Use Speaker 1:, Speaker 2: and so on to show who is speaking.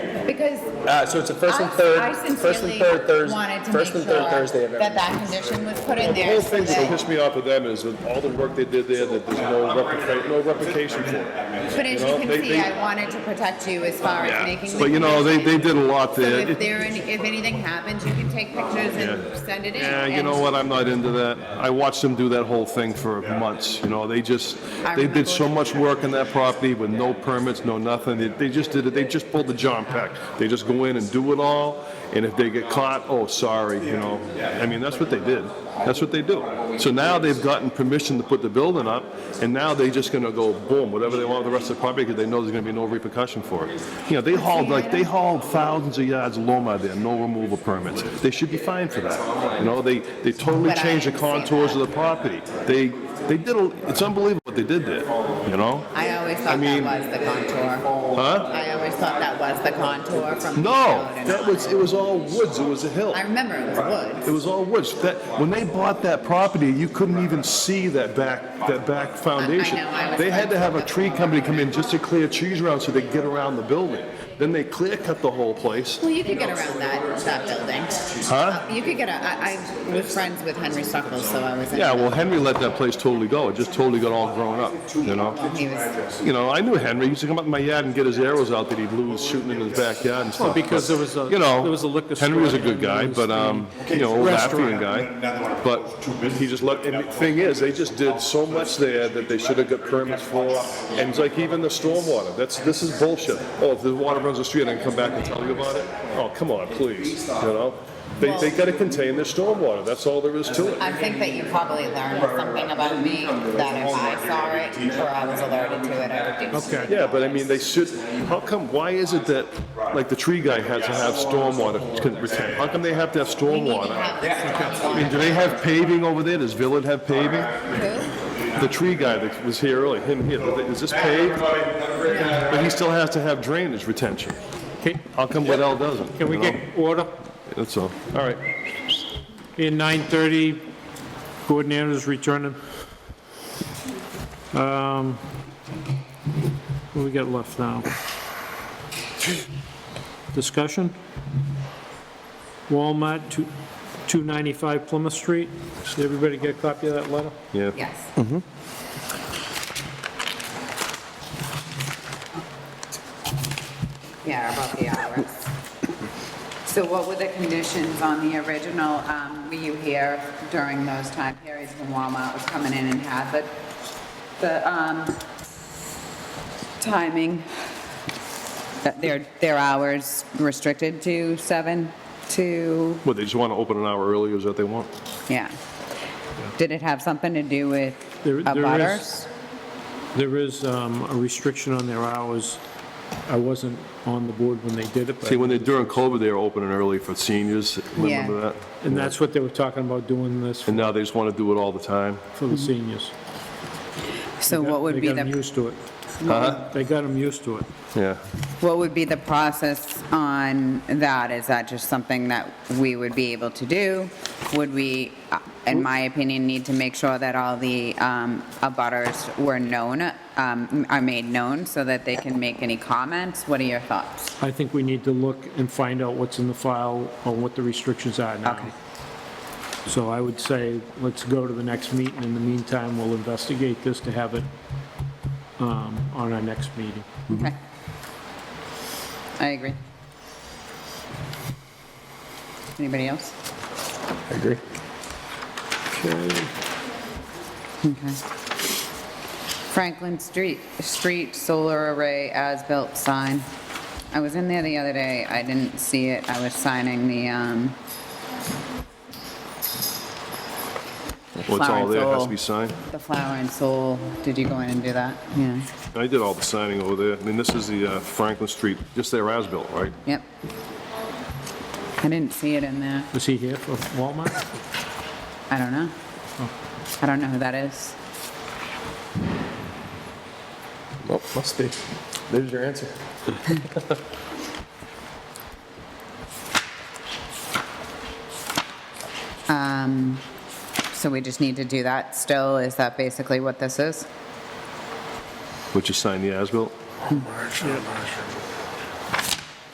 Speaker 1: because
Speaker 2: Uh, so it's the first
Speaker 1: I
Speaker 2: and third,
Speaker 1: I
Speaker 2: first and
Speaker 1: sincerely
Speaker 2: third Thursday,
Speaker 1: wanted to make
Speaker 2: first
Speaker 1: sure
Speaker 2: and third Thursday of every.
Speaker 1: that that condition was put in
Speaker 3: The
Speaker 1: there
Speaker 3: whole
Speaker 1: so
Speaker 3: thing that
Speaker 1: that,
Speaker 3: pissed me off with them is that all the work they did there, that there's no replica, no replication for it.
Speaker 1: but as
Speaker 3: know,
Speaker 1: you can
Speaker 3: they-
Speaker 1: see,
Speaker 3: they-
Speaker 1: I wanted to protect you as far as making. the
Speaker 3: But you know, they, they
Speaker 1: condition.
Speaker 3: did a lot
Speaker 1: So
Speaker 3: there.
Speaker 1: if
Speaker 3: It-
Speaker 1: there, any- if anything happens, you can take pictures and send it in.
Speaker 3: Yeah, you
Speaker 1: and-
Speaker 3: know what, I'm not into that. I watched them do that whole thing for months, you know, they just,
Speaker 1: I
Speaker 3: they did
Speaker 1: remember.
Speaker 3: so much work on that property with no permits, no nothing. They- They just did it, they just pulled the John Peck. They just go in and do it all, and if they get caught, oh, sorry, you know. I mean, that's what they did. That's what they do. So now they've gotten permission to put the building up, and now they're just gonna go boom, whatever they want with the rest of the property, because they know there's gonna be no repercussion for it. You know, they hauled, like, they hauled thousands of yards of loma there, no removal permits. They should be fined for that. You know, they, they totally
Speaker 1: But I
Speaker 3: changed the
Speaker 1: didn't see
Speaker 3: contours of the property. They, they did, a it's unbelievable what they did there, you know?
Speaker 1: I always
Speaker 3: I
Speaker 1: thought
Speaker 3: mean-
Speaker 1: that was the contour.
Speaker 3: Huh?
Speaker 1: I always thought that was the contour from. the
Speaker 3: No,
Speaker 1: road and
Speaker 3: that
Speaker 1: all.
Speaker 3: was, it was all woods, it was a hill.
Speaker 1: I remember it was woods.
Speaker 3: It was all woods. That, when they bought that property, you couldn't even see that back, that back foundation.
Speaker 1: I know, I was
Speaker 3: They had to have a
Speaker 1: like-
Speaker 3: tree company come in just to clear trees around so they could get around the building. Then they clear cut the whole place.
Speaker 1: Well, you could get around that, that building. You could get a, I, I was friends with Henry Suckles, so I was. in-
Speaker 3: Yeah, well, Henry let that place totally go. It just totally got all grown up, you know?
Speaker 1: He was,
Speaker 3: You know, I knew Henry. He used to come up in my yard and get his arrows out that he blew shooting in his backyard and stuff.
Speaker 4: because
Speaker 3: but,
Speaker 4: there was a-
Speaker 3: you know,
Speaker 4: there was a liquor
Speaker 3: Henry was a good
Speaker 4: store and there
Speaker 3: guy,
Speaker 4: was
Speaker 3: but
Speaker 4: the-
Speaker 3: um, you know, old
Speaker 4: Restaurant.
Speaker 3: Latvian guy. But he just loved. And the thing is, they just did so much there that they should have got permits for. And it's like even the stormwater. That's this is bullshit. Oh, if the water runs the street, I can come back and tell you about it. Oh, come on, please. You know. They, they got to contain their stormwater. That's all there is to it.
Speaker 1: I think that you probably learned something about me that if I saw it or I was alerted to it, I would do.
Speaker 4: Okay.
Speaker 3: Yeah, but I mean, they should. How come? Why is it that, like, the tree guy has to have stormwater? retain- How come they have to have
Speaker 1: We need to
Speaker 3: stormwater?
Speaker 1: have this
Speaker 3: I mean, do
Speaker 1: contour.
Speaker 3: they have paving over there? Does Villard have paving?
Speaker 1: Who?
Speaker 3: The tree guy that was here earlier, him here, is this paved? But he still has to have drainage retention.
Speaker 4: Can
Speaker 3: How come Waddell doesn't?
Speaker 4: can we
Speaker 3: you know?
Speaker 4: get order?
Speaker 3: That's all. All right.
Speaker 4: In 9:30, coordinators returning. Um, What we got left now? Discussion? Walmart, two- 295 Plymouth Street. Did everybody get a copy of that letter?
Speaker 3: Yeah.
Speaker 1: Yes. Yeah, about the hours. So what were the conditions on the original, um, were you here during those time periods when Walmart was coming in and had the, the, um, timing? That their, their hours restricted to seven to,
Speaker 3: What, they just want to open an hour earlier, is that they want?
Speaker 1: yeah. Did it have something to do with
Speaker 4: There- there is-
Speaker 1: butters?
Speaker 4: There is um, a restriction on their hours. I wasn't on the board when they did it, but...
Speaker 3: See, when they, during COVID, they were opening early for seniors, remember
Speaker 1: Yeah.
Speaker 3: that?
Speaker 4: And that's what they were talking about, doing this
Speaker 3: And now they just want to do it all the time.
Speaker 4: for the seniors.
Speaker 1: So what would be
Speaker 4: They got them
Speaker 1: the, Uh-huh.
Speaker 4: used to it. They got them used to it.
Speaker 3: Yeah.
Speaker 1: what would be the process on that? Is that just something that we would be able to do? Would we, uh, in my opinion, need to make sure that all the um, abutters were known, um, are made known so that they can make any comments? What are your thoughts?
Speaker 4: I think we need to look and find out what's in the file on what the restrictions are now.
Speaker 1: Okay.
Speaker 4: So I would say, let's go to the next meeting. In the meantime, we'll investigate this to have it um, on our next meeting.
Speaker 1: Okay. I agree. Anybody else?
Speaker 5: I agree.
Speaker 1: Okay. Franklin Street, street solar array as-built sign. I was in there the other day, I didn't see it, I was signing the, um,
Speaker 3: Well, it's all
Speaker 1: Flowers
Speaker 3: there, it has
Speaker 1: all-
Speaker 3: to be signed.
Speaker 1: the flower and soul, did you go in and do that? Yeah,
Speaker 3: I did all the signing over there. I mean, this is the uh, Franklin Street, just there as built, right?
Speaker 1: yep. I didn't see it in there,
Speaker 4: Was he here for Walmart?
Speaker 1: I don't know. I don't know who that is.
Speaker 5: Well, must be. There's your answer.
Speaker 1: Um, so we just need to do that still, is that basically what this is?
Speaker 3: Which is signed the as built?